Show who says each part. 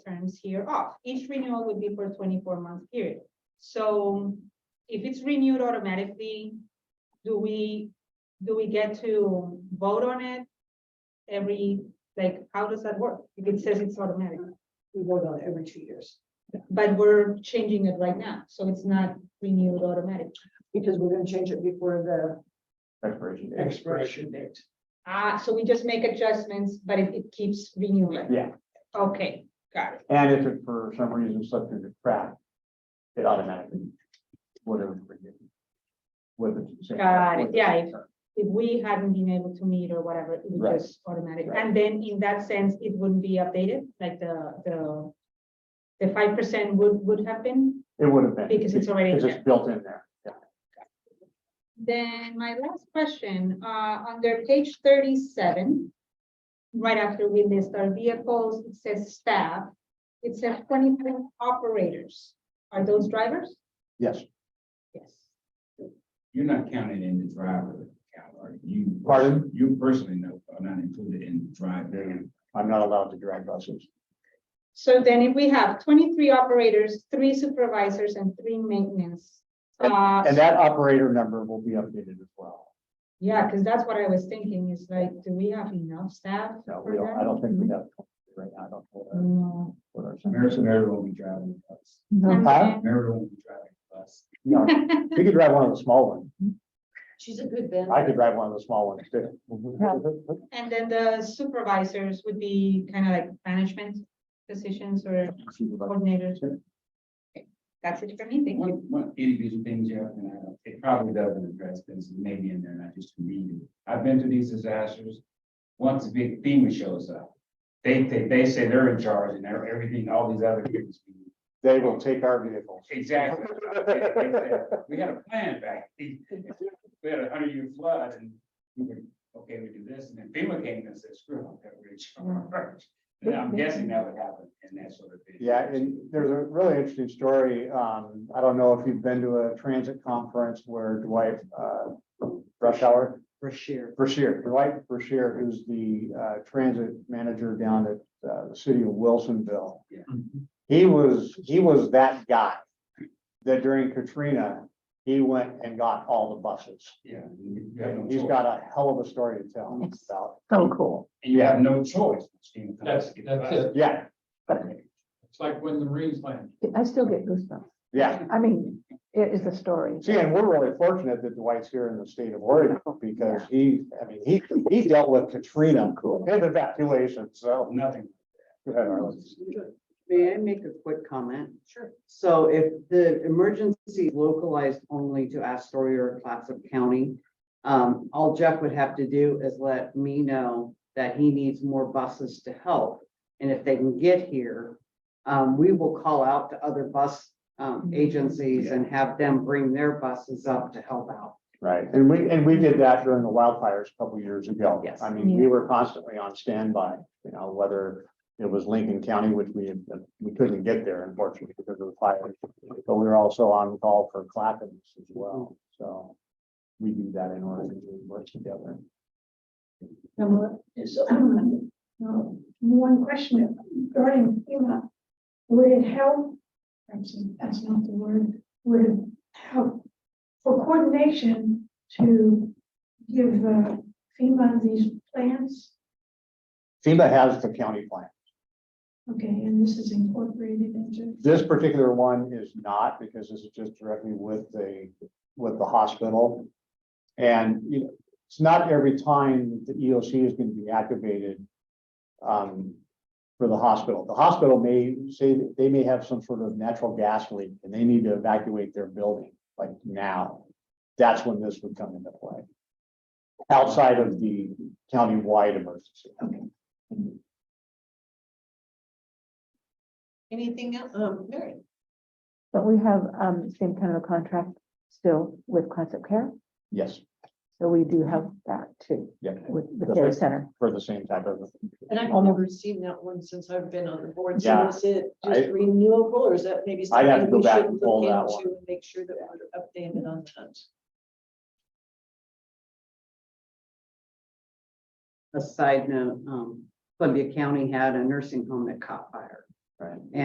Speaker 1: terms hereof. Each renewal would be for a twenty-four month period. So if it's renewed automatically, do we, do we get to vote on it? Every, like, how does that work? If it says it's automatic,
Speaker 2: We vote on it every two years,
Speaker 1: but we're changing it right now, so it's not renewed automatically.
Speaker 2: because we're gonna change it before
Speaker 3: expiration
Speaker 2: the
Speaker 3: date.
Speaker 2: expiration date.
Speaker 1: Ah, so we just make adjustments, but it, it keeps renewing.
Speaker 3: Yeah,
Speaker 1: Okay, got it.
Speaker 3: and if it for some reason slipped through the crack, it automatically, whatever. Whether it's. the same-
Speaker 1: Got it.
Speaker 3: whether it's
Speaker 1: Yeah,
Speaker 3: the same.
Speaker 1: If we hadn't been able to meet or whatever, it would
Speaker 3: Right.
Speaker 1: just automatic.
Speaker 3: Right.
Speaker 1: And then in that sense, it wouldn't be updated, like the, the the five percent would, would have been
Speaker 3: It would have been.
Speaker 1: Because it's already
Speaker 3: It's
Speaker 1: there.
Speaker 3: just built in there. Yeah.
Speaker 1: Then my last question, uh, under page thirty-seven. Right after we list our vehicles, it says staff, it says twenty-three operators. Are those drivers?
Speaker 3: Yes,
Speaker 1: Yes.
Speaker 4: You're not counted in the driver count, are you?
Speaker 3: Pardon?
Speaker 4: You personally know, are not included in the driver.
Speaker 3: I'm not allowed to drag buses.
Speaker 1: So then if we have twenty-three operators, three supervisors and three maintenance. uh,
Speaker 3: And that operator number will be updated as well.
Speaker 1: Yeah, because that's what I was thinking is like, do we have enough staff?
Speaker 3: No,
Speaker 1: for
Speaker 3: we don't, I
Speaker 1: that?
Speaker 3: don't think we have. Right now, I don't. know what our-
Speaker 1: No.
Speaker 3: what our-
Speaker 4: Meredith, Meredith won't be driving the bus.
Speaker 1: And
Speaker 3: Huh?
Speaker 1: then-
Speaker 4: Meredith won't be driving the bus.
Speaker 3: No, we could drive one of the small ones.
Speaker 2: She's a good vendor.
Speaker 3: I could drive one of the small ones too.
Speaker 1: And then the supervisors would be kind of like management positions or coordinators.
Speaker 3: Sure.
Speaker 1: Okay, That's it for me, thank you.
Speaker 4: One, one individual thing, Jeff, and I, it probably doesn't address this, maybe in there, and I just read it. I've been to these disasters. Once a big FEMA shows up, they, they, they say they're in charge and they're everything, all these other people.
Speaker 3: They will take our vehicles.
Speaker 4: Exactly. We had a plan back, we had a hundred year flood and we were, okay, we do this, and then FEMA came and said, screw it, that we're in charge. And I'm guessing that would happen in that sort of. thing.
Speaker 3: Yeah, and there's a really interesting story. Um, I don't know if you've been to a transit conference where Dwight, uh, Rush Hour,
Speaker 2: Brashear.
Speaker 3: Brashear, Dwight Brashear, who's the, uh, transit manager down at, uh, the city of Wilsonville. He was, he was that guy that during Katrina, he went and got all the buses.
Speaker 4: Yeah. you have no
Speaker 3: And He's
Speaker 4: choice.
Speaker 3: got a hell of a story to tell about,
Speaker 5: So cool.
Speaker 4: And you have no choice. Steve.
Speaker 6: That's, that's it.
Speaker 3: yeah,
Speaker 6: It's like when the Marines land.
Speaker 5: I still get goosebumps.
Speaker 3: yeah.
Speaker 5: I mean, it is a story.
Speaker 3: See, and we're really fortunate that Dwight's here in the state of Oregon because he, I mean, he, he dealt with Katrina and evacuation, so.
Speaker 4: Nothing.
Speaker 3: Go ahead, Arlen.
Speaker 7: May I make a quick comment?
Speaker 2: Sure.
Speaker 7: So if the emergency is localized only to Astoria or Clatsop County, um, all Jeff would have to do is let me know that he needs more buses to help. And if they can get here, um, we will call out to other bus, um, agencies and have them bring their buses up to help out.
Speaker 3: Right, and we, and we did that during the wildfires a couple years ago.
Speaker 7: Yes.
Speaker 3: I mean, we were constantly on standby, you know, whether it was Lincoln County, which we, we couldn't get there unfortunately because of the fire. But we were also on call for Clapham as well, so we do that in order to work together.
Speaker 8: So, um, um, one question regarding FEMA. Would it help, perhaps that's not the word, would it help for coordination to give uh, FEMA these plans?
Speaker 3: FEMA has the county plan.
Speaker 8: Okay, and this is incorporated into,
Speaker 3: This particular one is not, because this is just directly with the, with the hospital. And, you know, it's not every time that the EOC is going to be activated um, for the hospital. The hospital may say, that they may have some sort of natural gas leak, and they need to evacuate their building, like now. That's when this would come into play. Outside of the county-wide emergency.
Speaker 2: Anything else? Um, Mary?
Speaker 5: But we have um same kind of a contract still with Concept Care.
Speaker 3: Yes,
Speaker 5: So we do have that too
Speaker 3: yeah,
Speaker 5: with the care center.
Speaker 3: for the same type of.
Speaker 2: And I've never seen that one since I've been on the board. So
Speaker 3: Yeah.
Speaker 2: is it
Speaker 3: I-
Speaker 2: just renewable or is that maybe?
Speaker 3: I'd have to go
Speaker 2: something we
Speaker 3: back
Speaker 2: should
Speaker 3: and
Speaker 2: look
Speaker 3: pull that
Speaker 2: into
Speaker 3: one.
Speaker 2: and Make sure that we're updated on that.
Speaker 7: A side note, um, Columbia County had a nursing home that caught fire.